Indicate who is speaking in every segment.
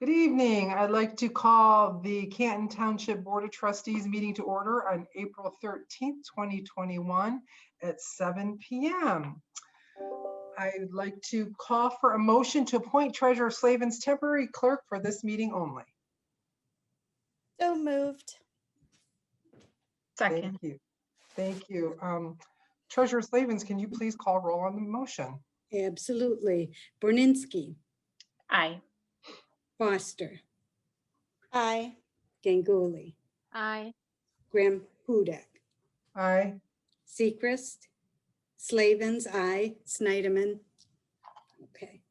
Speaker 1: Good evening. I'd like to call the Canton Township Board of Trustees meeting to order on April 13th, 2021 at 7 PM. I'd like to call for a motion to appoint Treasurer Slavin's temporary clerk for this meeting only.
Speaker 2: So moved.
Speaker 1: Thank
Speaker 3: Second,
Speaker 1: you. Thank you. Um, Treasurer Slavens, can you please call roll on the motion?
Speaker 4: Absolutely. Borninski,
Speaker 3: aye.
Speaker 4: Foster,
Speaker 2: Aye.
Speaker 4: Ganguly,
Speaker 3: Aye.
Speaker 4: Graham Hudek,
Speaker 1: Aye.
Speaker 4: Sechrist, Slavens, I, Snyderman. Okay,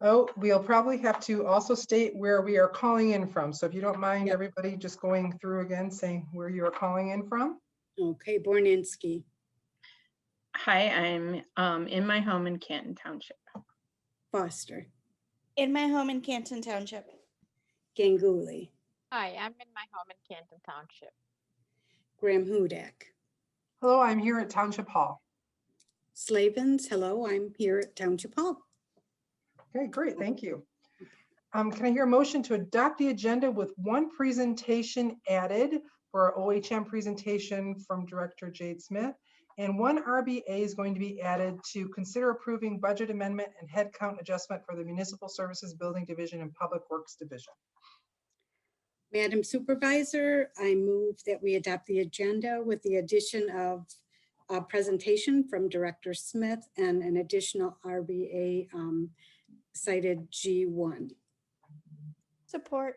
Speaker 1: Oh, we'll probably have to also state where we are calling in from. So if you don't mind,
Speaker 4: Yep.
Speaker 1: everybody just going through again, saying where you are calling in from.
Speaker 4: okay, Borninski,
Speaker 3: Hi, I'm um in my home in Canton Township.
Speaker 4: Foster,
Speaker 2: In my home in Canton Township.
Speaker 4: Ganguly,
Speaker 5: Hi, I'm in my home in Canton Township.
Speaker 4: Graham Hudek.
Speaker 1: Hello, I'm here at Township Hall.
Speaker 4: Slavens, hello, I'm here at Township Hall.
Speaker 1: Okay, great, thank you. Um, Can I hear a motion to adopt the agenda with one presentation added for our OHM presentation from Director Jade Smith? And one RBA is going to be added to consider approving budget amendment and headcount adjustment for the Municipal Services Building Division and Public Works Division.
Speaker 4: Madam Supervisor, I move that we adopt the agenda with the addition of a presentation from Director Smith and an additional RBA um, cited G1.
Speaker 2: Support.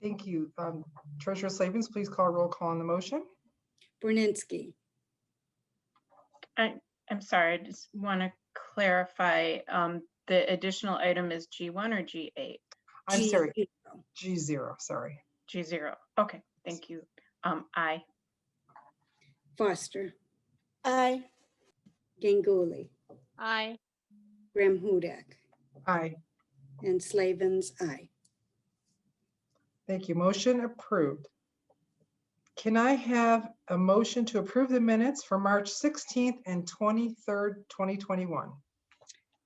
Speaker 1: Thank you. Um, Treasurer Slavens, please call roll call on the motion.
Speaker 4: Borninski,
Speaker 3: I'm sorry, I just want to clarify, um, the additional item is G1 or G8?
Speaker 1: I'm
Speaker 4: G-
Speaker 1: sorry, G zero, sorry.
Speaker 3: G0. Okay, thank you. Um, aye.
Speaker 4: Foster,
Speaker 2: Aye.
Speaker 4: Ganguly,
Speaker 5: Aye,
Speaker 4: Graham Hudak,
Speaker 1: Aye,
Speaker 4: and Slavens, I.
Speaker 1: thank you. Motion approved. Can I have a motion to approve the minutes for March sixteenth and twenty-third, twenty twenty-one?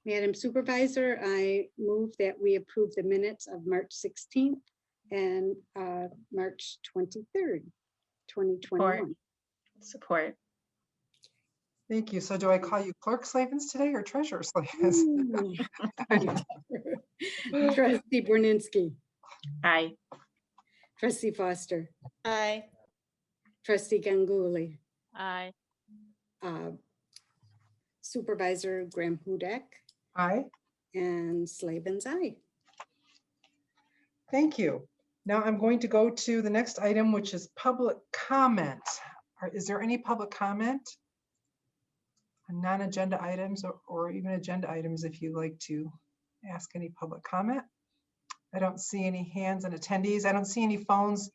Speaker 4: Madam Supervisor, I move that we approve the minutes of March 16th and uh, March 23rd, 2021.
Speaker 3: Support.
Speaker 1: Thank you. So do I call you Clerk Slavens today or Treasurer Slavens?
Speaker 4: Ooh. Trustee Borninski,
Speaker 3: Aye.
Speaker 4: trustee Foster,
Speaker 2: Aye.
Speaker 4: trustee Ganguly,
Speaker 5: aye,
Speaker 4: uh, supervisor Graham Hudek,
Speaker 1: Aye.
Speaker 4: and Slavens, I.
Speaker 1: Thank you. Now I'm going to go to the next item, which is public comment. Are- Is there any public comment? on Non-agenda items or- or even agenda items if you'd like to ask any public comment. I don't see any hands and attendees. I don't see any phones.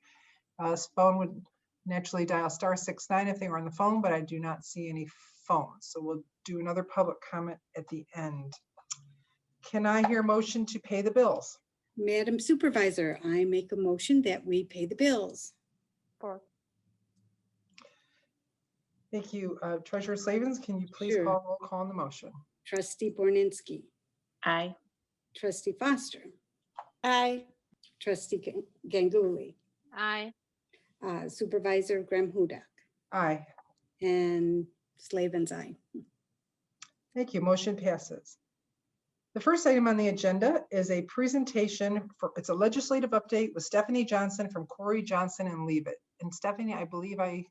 Speaker 1: Uh, s- Phone would naturally dial star six nine if they were on the phone, but I do not see any phones. So we'll do another public comment at the end. Can I hear motion to pay the bills?
Speaker 4: Madam Supervisor, I make a motion that we pay the bills.
Speaker 5: for,
Speaker 1: Thank you. Uh, Treasurer Slavens, can you please
Speaker 4: Sure.
Speaker 1: call roll call on the motion?
Speaker 4: Trustee Borninski,
Speaker 3: Aye.
Speaker 4: trustee Foster,
Speaker 2: Aye.
Speaker 4: trustee Gan- Ganguly,
Speaker 5: aye,
Speaker 4: uh, supervisor Graham Hudak,
Speaker 1: Aye.
Speaker 4: and Slavens, I.
Speaker 1: Thank you. Motion passes. The first item on the agenda is a presentation for, it's a legislative update with Stephanie Johnson from Corey Johnson and Leave It. And Stephanie, I believe I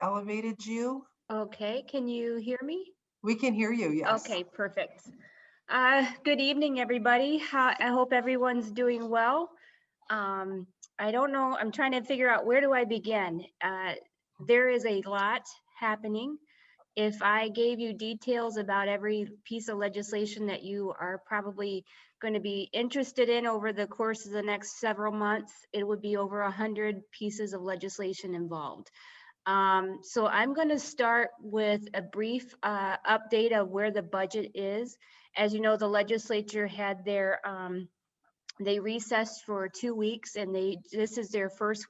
Speaker 1: elevated you.
Speaker 6: Okay, can you hear me?
Speaker 1: We can hear you, yes.
Speaker 6: Okay, perfect. Uh, Good evening, everybody. Ho- I hope everyone's doing well. Um, I don't know, I'm trying to figure out where do I begin? Uh, There is a lot happening. If I gave you details about every piece of legislation that you are probably going to be interested in over the course of the next several months, it would be over 100 pieces of legislation involved. Um, so I'm going to start with a brief uh, update of where the budget is. As you know, the legislature had their, um, they recessed for two weeks and they, this is their first